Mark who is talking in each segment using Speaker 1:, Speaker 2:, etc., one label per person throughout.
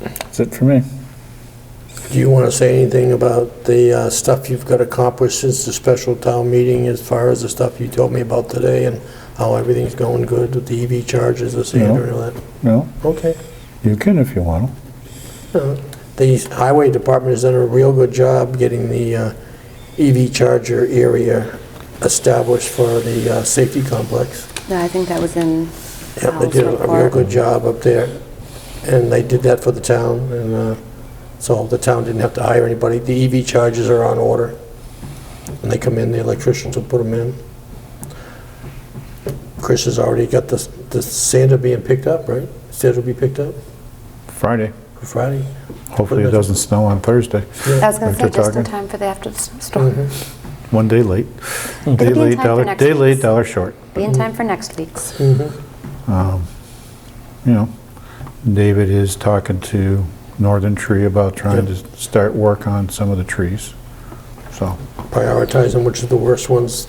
Speaker 1: That's it for me.
Speaker 2: Do you want to say anything about the uh, stuff you've got accomplished since the special town meeting as far as the stuff you told me about today and how everything's going good with the EV chargers, the sander and all that?
Speaker 1: No,
Speaker 2: Okay.
Speaker 1: you can if you want to.
Speaker 2: Uh, The highway department has done a real good job getting the uh, EV charger area established for the uh, safety complex.
Speaker 3: No, I think that was in
Speaker 2: Yep, they
Speaker 3: Al's
Speaker 2: did a real
Speaker 3: report.
Speaker 2: good job up there, and they did that for the town, and uh, so the town didn't have to hire anybody. The EV chargers are on order, and they come in, the electricians will put them in. Chris has already got the, the sander being picked up, right? Sander will be picked up
Speaker 1: Friday.
Speaker 2: for Friday.
Speaker 1: Hopefully it doesn't snow on Thursday.
Speaker 3: I was going to
Speaker 1: After
Speaker 3: say, just
Speaker 1: talking.
Speaker 3: in time for the after the
Speaker 2: Mm-hmm.
Speaker 3: storm.
Speaker 1: One day late. Day
Speaker 3: It'll be in
Speaker 1: late,
Speaker 3: time for
Speaker 1: dollar,
Speaker 3: next
Speaker 1: day late,
Speaker 3: week's.
Speaker 1: dollar short.
Speaker 3: Be in time for next week's.
Speaker 1: You know, David is talking to Northern Tree about trying to start work on some of the trees. So,
Speaker 2: prioritizing which are the worst ones.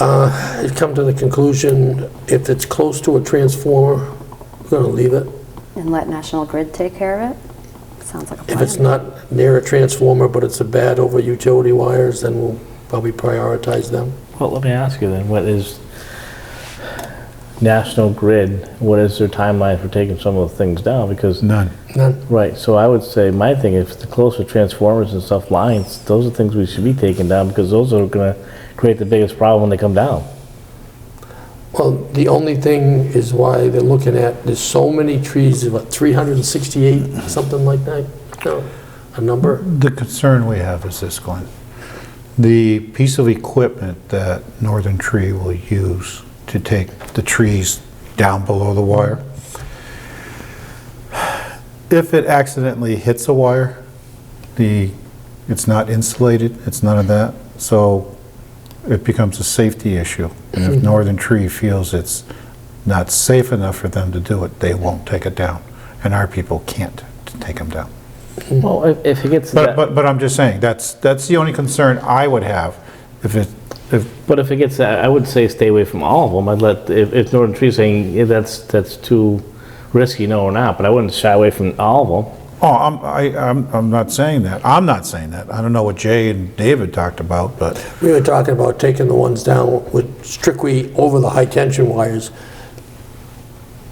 Speaker 2: Uh, I've come to the conclusion, if it's close to a transformer, we're going to leave it.
Speaker 3: And let National Grid take care of it? Sounds like a
Speaker 2: If it's
Speaker 3: plan.
Speaker 2: not near a transformer, but it's a bad over utility wires, then we'll probably prioritize them.
Speaker 4: Well, let me ask you then, what is National Grid, what is their timeline for taking some of the things down? Because,
Speaker 1: none.
Speaker 2: None.
Speaker 4: right, so I would say, my thing, if it's close to transformers and stuff, lines, those are things we should be taking down, because those are gonna create the biggest problem when they come down.
Speaker 2: Well, the only thing is why they're looking at, there's so many trees, about 368, something like that, No, a number.
Speaker 1: The concern we have is this, Glenn. The piece of equipment that Northern Tree will use to take the trees down below the wire, if it accidentally hits a wire, the, it's not insulated, it's none of that, so it becomes a safety issue. And if Northern Tree feels it's not safe enough for them to do it, they won't take it down, and our people can't take them down.
Speaker 4: Well, if, if it gets to
Speaker 1: But,
Speaker 4: that,
Speaker 1: but, but I'm just saying, that's, that's the only concern I would have, if it, if,
Speaker 4: but if it gets, to that, I would say stay away from all of them, I'd let, if, if Northern Tree's saying, yeah, that's, that's too risky, no, or not, but I wouldn't shy away from all of them.
Speaker 1: oh, I'm, I, I'm, I'm not saying that, I'm not saying that, I don't know what Jay and David talked about, but,
Speaker 2: We were talking about taking the ones down with strictly over the high-tension wires,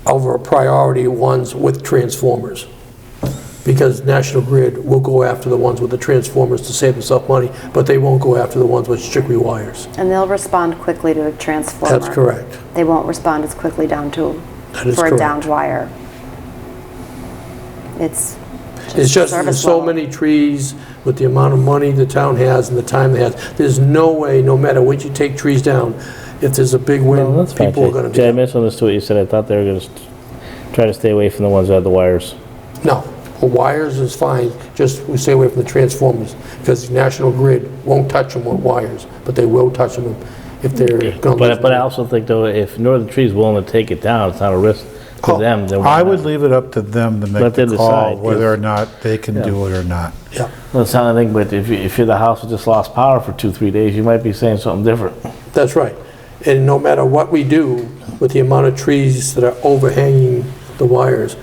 Speaker 2: over priority ones with transformers. Because National Grid will go after the ones with the transformers to save themselves money, but they won't go after the ones with strictly wires.
Speaker 3: And they'll respond quickly to a transformer.
Speaker 2: That's correct.
Speaker 3: They won't respond as quickly down to,
Speaker 2: That is
Speaker 3: for a
Speaker 2: correct.
Speaker 3: downed wire. It's
Speaker 2: It's just,
Speaker 3: just
Speaker 2: there's
Speaker 3: service
Speaker 2: so
Speaker 3: level.
Speaker 2: many trees with the amount of money the town has and the time they have. There's no way, no matter what you take trees down, if there's a big
Speaker 4: Well,
Speaker 2: wind,
Speaker 4: that's fine,
Speaker 2: people are
Speaker 4: Jay.
Speaker 2: gonna be.
Speaker 4: Jay, I misunderstood what you said. I thought they were gonna st- try to stay away from the ones that have the wires.
Speaker 2: No, the wires is fine, just we stay away from the transformers, because National Grid won't touch them with wires, but they will touch them if they're gonna lose
Speaker 4: But, but I
Speaker 2: money.
Speaker 4: also think though, if Northern Tree's willing to take it down, it's not a risk to
Speaker 2: Oh,
Speaker 4: them. then why
Speaker 1: I would
Speaker 4: not?
Speaker 1: leave it up to them to make
Speaker 4: Let them
Speaker 1: the call,
Speaker 4: decide,
Speaker 1: whether
Speaker 4: yes.
Speaker 1: or not they can do it or not.
Speaker 2: Yeah,
Speaker 4: Well, It's not anything, but if, you- if you're the house that just lost power for two, three days, you might be saying something different.
Speaker 2: that's right. And no matter what we do with the amount of trees that are overhanging the wires,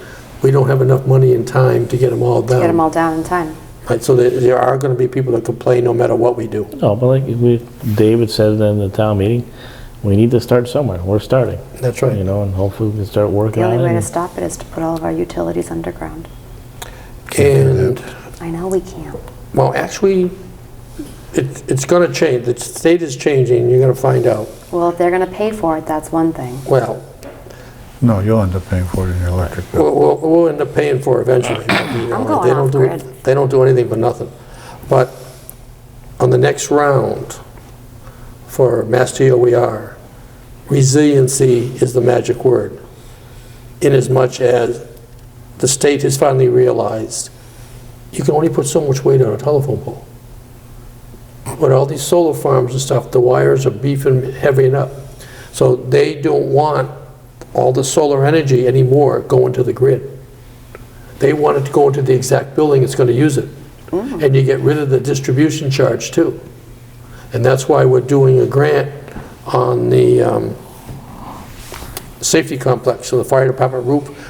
Speaker 2: we don't have enough money and time to get them all down.
Speaker 3: get them all down in time.
Speaker 2: Right, so there- there are gonna be people that complain no matter what we do.
Speaker 4: No, but like we, David said in the town meeting, we need to start somewhere. We're starting,
Speaker 2: That's
Speaker 4: you
Speaker 2: right.
Speaker 4: know, and hopefully we can start working
Speaker 3: The
Speaker 4: on it.
Speaker 3: only way to
Speaker 4: and-
Speaker 3: stop it is to put all of our utilities underground.
Speaker 2: And
Speaker 3: I know we can't.
Speaker 2: Well, actually, it- it's going to change. The state is changing, you're going to find out.
Speaker 3: Well, if they're going to pay for it, that's one thing.
Speaker 2: Well,
Speaker 1: No, you'll end up paying for it in your electric bill.
Speaker 2: we'll- we'll we'll end up paying for it eventually. you know,
Speaker 3: I'm going
Speaker 2: they don't
Speaker 3: off
Speaker 2: do-
Speaker 3: grid.
Speaker 2: They don't do anything for nothing. But on the next round for Mass DOER, resiliency is the magic word, inasmuch as the state has finally realized you can only put so much weight on a telephone pole. With all these solar farms and stuff, the wires are beefing, heavying up. So they don't want all the solar energy anymore going to the grid. They want it to go into the exact building that's going to use it. And you get rid of the distribution charge too. And that's why we're doing a grant on the um, safety complex, so the fire department roof